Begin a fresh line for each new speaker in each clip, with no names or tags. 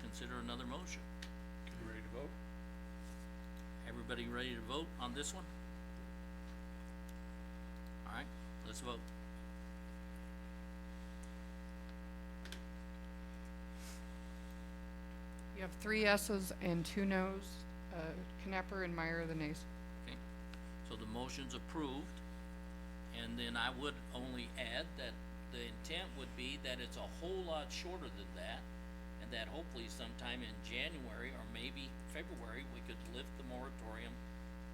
consider another motion.
You ready to vote?
Everybody ready to vote on this one? Alright, let's vote.
You have three yeses and two noes. Uh, Knapper and Meyer are the nays.
Okay, so the motion's approved, and then I would only add that the intent would be that it's a whole lot shorter than that, and that hopefully sometime in January or maybe February, we could lift the moratorium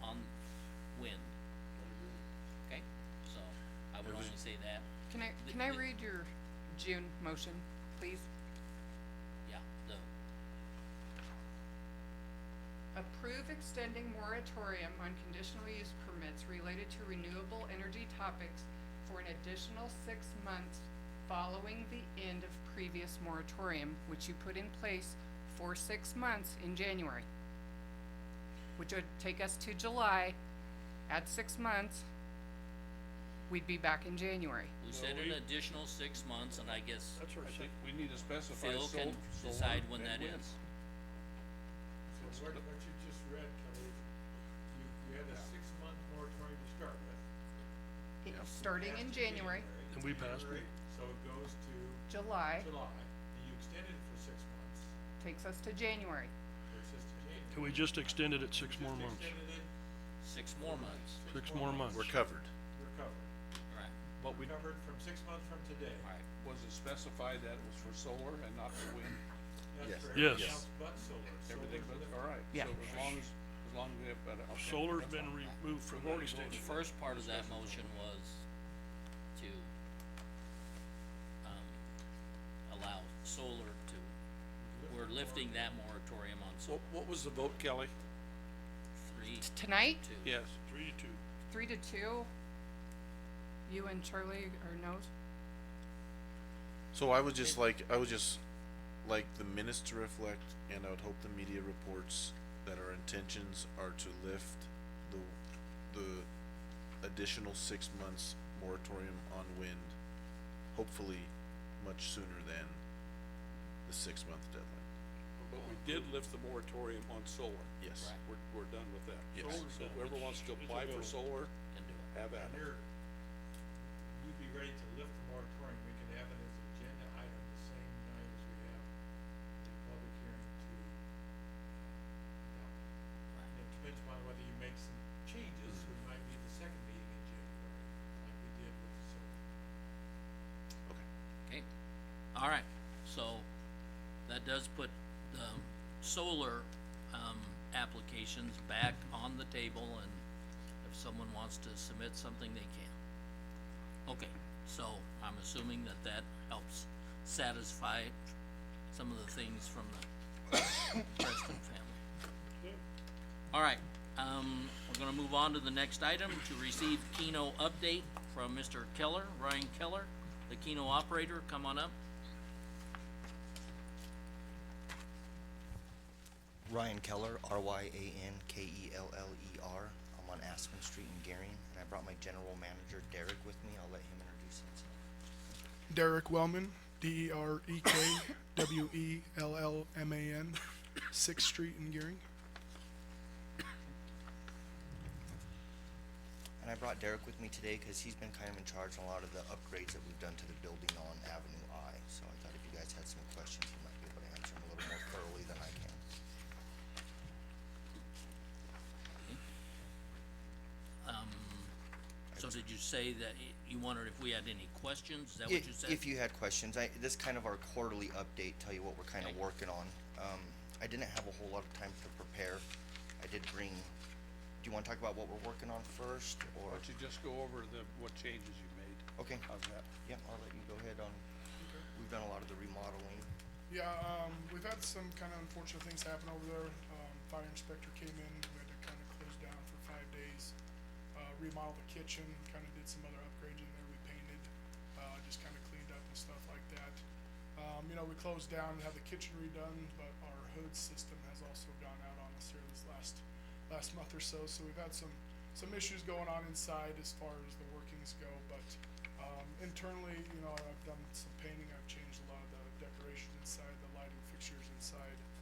on wind. Okay, so I would only say that,
Can I,
The-
can I
the-
read your June motion, please?
yeah, the,
Approve extending moratorium on conditional use permits related to renewable energy topics for an additional six months following the end of previous moratorium, which you put in place for six months in January. Which would take us to July. At six months, we'd be back in January.
we
No,
said
we-
an additional six months, and I guess
That's our
I think
second,
we need to specify
Phil
so,
can
so
decide
on
when
and
that is.
So what, what you just read, Kelly, you, you had a six-month moratorium to start with.
It- Starting in
After
January,
And we passed it.
January, So it goes to
July
July, and you extended it for six months,
takes us to January.
it's just a January.
and we just extended it six more months,
Extended it,
six more months,
six more months.
We're covered.
we're covered,
right,
But we,
we're covered from six months from today.
right,
was it specified that it was for solar and not for wind?
Yes.
That's for
Yes.
everything else but solar.
Everything
Solar's
but,
the-
alright, so
Yeah.
as long as, as long as we have better, okay.
Solar's
that's
been
fine.
removed from
We've
that
already
extension.
voted.
The first part of that motion was to, um, allow solar to, we're lifting that moratorium on
What,
solar
what was the vote, Kelly?
three,
T- Tonight,
two.
Yes,
Three to two.
three to two, you and Charlie are no's.
So I would just like, I would just like the minutes to reflect, and I would hope the media reports that our intentions are to lift the, the additional six months moratorium on wind, hopefully much sooner than the six-month deadline.
but we did lift the moratorium on solar.
Yes.
Right.
We're, we're done with that.
Yes. Solar's
So whoever wants to apply for solar,
Can do it.
have at
And
it.
you're, you'd be ready to lift the moratorium, we can have it as agenda item the same night as we have the public hearing to uh, adopt it. And it depends upon whether you make some changes, it might be the second meeting in January, like we did with the solar.
Okay.
Okay, all right, so that does put the solar, um, applications back on the table and if someone wants to submit something, they can. Okay, so I'm assuming that that helps satisfy some of the things from the Preston family. All right, um, we're gonna move on to the next item, to receive Keno update from Mr. Keller, Ryan Keller, the Keno operator, come on up.
Ryan Keller, E R-Y-A-N-K-E-L-L-E-R. I'm on Aspen Street in Garing, and I brought my general manager Derek with me. I'll let him introduce himself.
Derek Wellman, D E R E K W E L L M A N, Sixth Street in Gearing.
And I brought Derek with me today because he's been kind of in charge on a lot of the upgrades that we've done to the building on Avenue I. So I thought if you guys had some questions, he might be able to answer them a little more thoroughly than I can.
So did you say that y- you wondered if we had any questions, is that what you
If,
said?
if you had questions, I, this is kind of our quarterly update, tell you what we're kind of
Okay.
working on. Um, I didn't have a whole lot of time to prepare. I did bring, do you want to talk about what we're working on first,
Why
or?
don't you just go over the, what changes you made?
Okay.
How's that?
Um, Yeah, I'll let you go ahead on, we've done a lot of the remodeling.
Yeah, um, we've had some kind of unfortunate things happen over there. Um, fire inspector came in, we had to kind of close down for five days. Uh, remodeled the kitchen, kind of did some other upgrades in there, we painted, uh, just kind of cleaned up and stuff like that. Um, you know, we closed down and had the kitchen redone, but our hood system has also gone out on us here this last, last month or so. So we've had some, some issues going on inside as far as the workings go, but, um, internally, you know, I've done some painting, I've changed a lot of the decorations inside, the lighting fixtures inside.